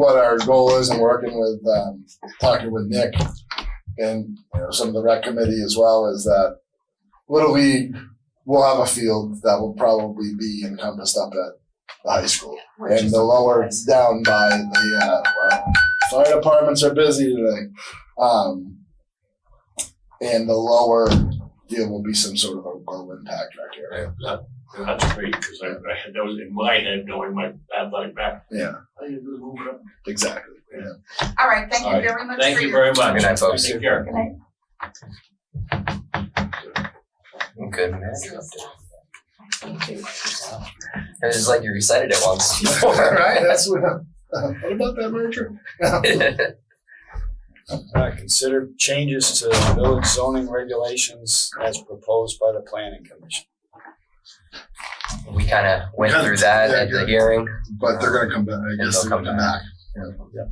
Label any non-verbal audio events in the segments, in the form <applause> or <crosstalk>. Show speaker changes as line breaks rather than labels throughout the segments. what our goal is and working with, um, talking with Nick and, you know, some of the rec committee as well is that Little League will have a field that will probably be encompassed up at the high school. And the lower it's down by the, uh, well, fire departments are busy today. Um, and the lower deal will be some sort of a low impact rec area.
Yeah, that- That's great, because I, I had those in my head, knowing my athletic back.
Yeah,
I need to move it up.
exactly. Yeah. <laughs>
All right, thank
All
you
right.
very much
Thank
for
you
your.
very much.
Good night, folks.
Take care.
Good manager It was just like you recited it once before, <laughs>
Right,
right?
that's what, <laughs> what about that merger?
Uh, consider changes to village zoning regulations as proposed by the planning commission.
we kind of went
Kinda,
through that
yeah,
at the
yeah.
hearing.
But they're gonna come back, I guess
they'll
they're
come
gonna come back.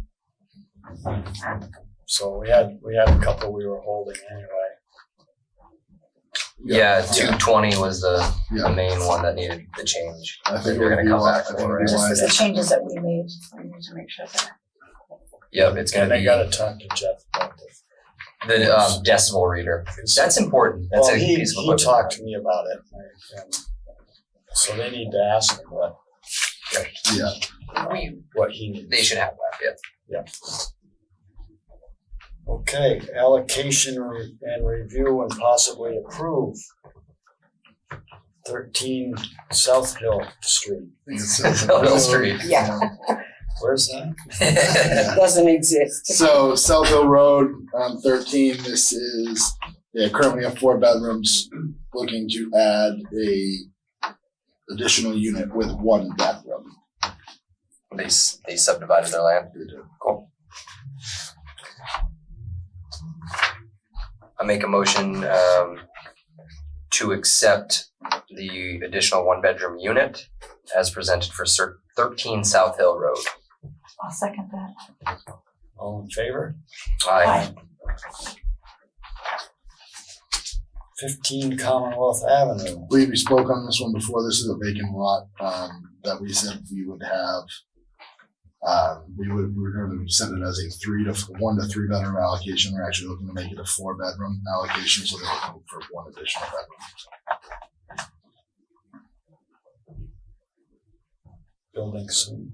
So we had, we had a couple we were holding anyway.
Yeah, 220 was the, the
Yeah,
main one that needed the change.
I think
They're
we're
gonna
gonna
come
come
back
I think
for
we
it.
This is the
realize.
changes that we made, I need to make sure that.
Yep, it's going
And
to
I
be
gotta talk to Jeff about this.
the um, decimal reader. That's important. That's
Well,
a
he,
piece of
he
equipment.
talked to me about it. and- So they need to ask him what,
Yeah,
We-
what he needs.
they should have that. Yeah.
Okay, allocation re- and review and possibly approve. Thirteen South Hill Street.
I think it's-
South Hill Street.
Yeah.
Where's that? <laughs>
yeah.
Doesn't exist.
So South Hill Road, um, thirteen, this is, yeah, currently have four bedrooms, looking to add a additional unit with one bathroom.
They s- they subdivided their land. Cool. I make a motion um to accept the additional one bedroom unit as presented for cer- thirteen South Hill Road.
I'll second that.
All in favor?
Aye.
Fifteen Commonwealth Avenue.
believe we spoke on this one before. This is a vacant lot, um, that we said we would have. Uh, we would, we were gonna send it as a three to, one to three bedroom allocation. We're actually looking to make it a four bedroom allocation, so they're looking for one additional bedroom.
building soon.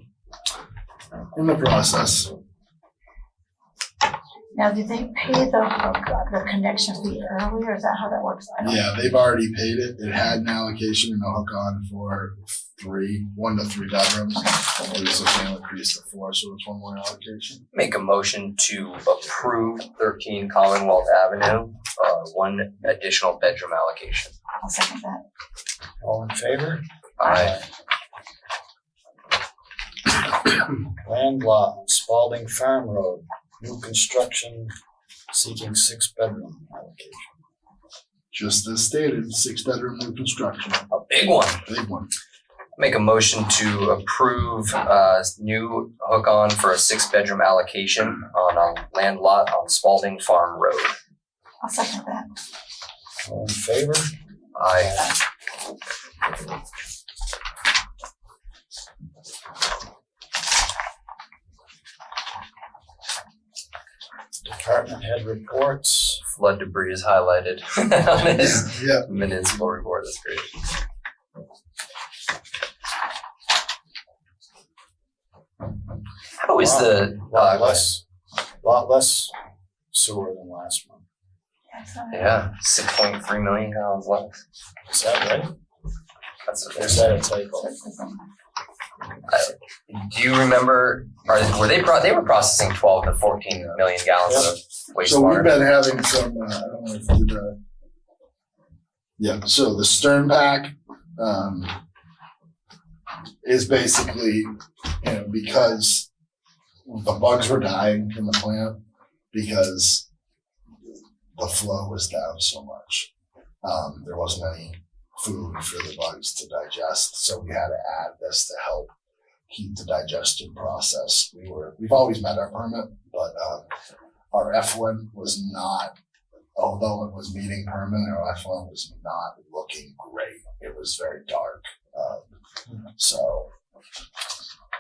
In the process,
Now, did they pay the, oh the connection fee earlier, is that how that works? I don't-
yeah, they've already paid it. It had an allocation and a hook on for three, one to three bedrooms. And this will increase to four, so it's one more allocation.
Make a motion to approve thirteen Commonwealth Avenue, uh one additional bedroom allocation.
I'll second that.
All in favor?
Aye.
Land lot on Spalding Farm Road, new construction, seeking six bedroom allocation.
Just as stated, six bedroom new construction,
A big one.
big one.
Make a motion to approve uh new hook-on for a six-bedroom allocation on a land lot on Spalding Farm Road.
I'll second that.
All in favor?
I
Department head reports.
flood debris is highlighted <laughs> on this
Yeah,
municipal report, that's great. How is the,
Lot
uh,
less, lot less sewer than last month.
Yes, all right.
yeah, six point three million gallons left?
Is that right?
That's what
Or
they're
is
saying.
that a typo?
Do you remember, are, were they, pro- they were processing twelve to fourteen million gallons of
So we've
wastewater?
been having some, uh, I don't know if you did, uh, yeah, so the Stern Pack, um, is basically, you know, because the bugs were dying in the plant because the flow was down so much. Um, there wasn't any food for the bugs to digest, so we had to add this to help keep the digestion process. We were, we've always met our permit, but, um, our F1 was not, although it was meeting permit, our F1 was not looking great. It was very dark. Um, so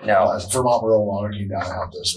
No,
Uh, Vermont rural water came down and helped us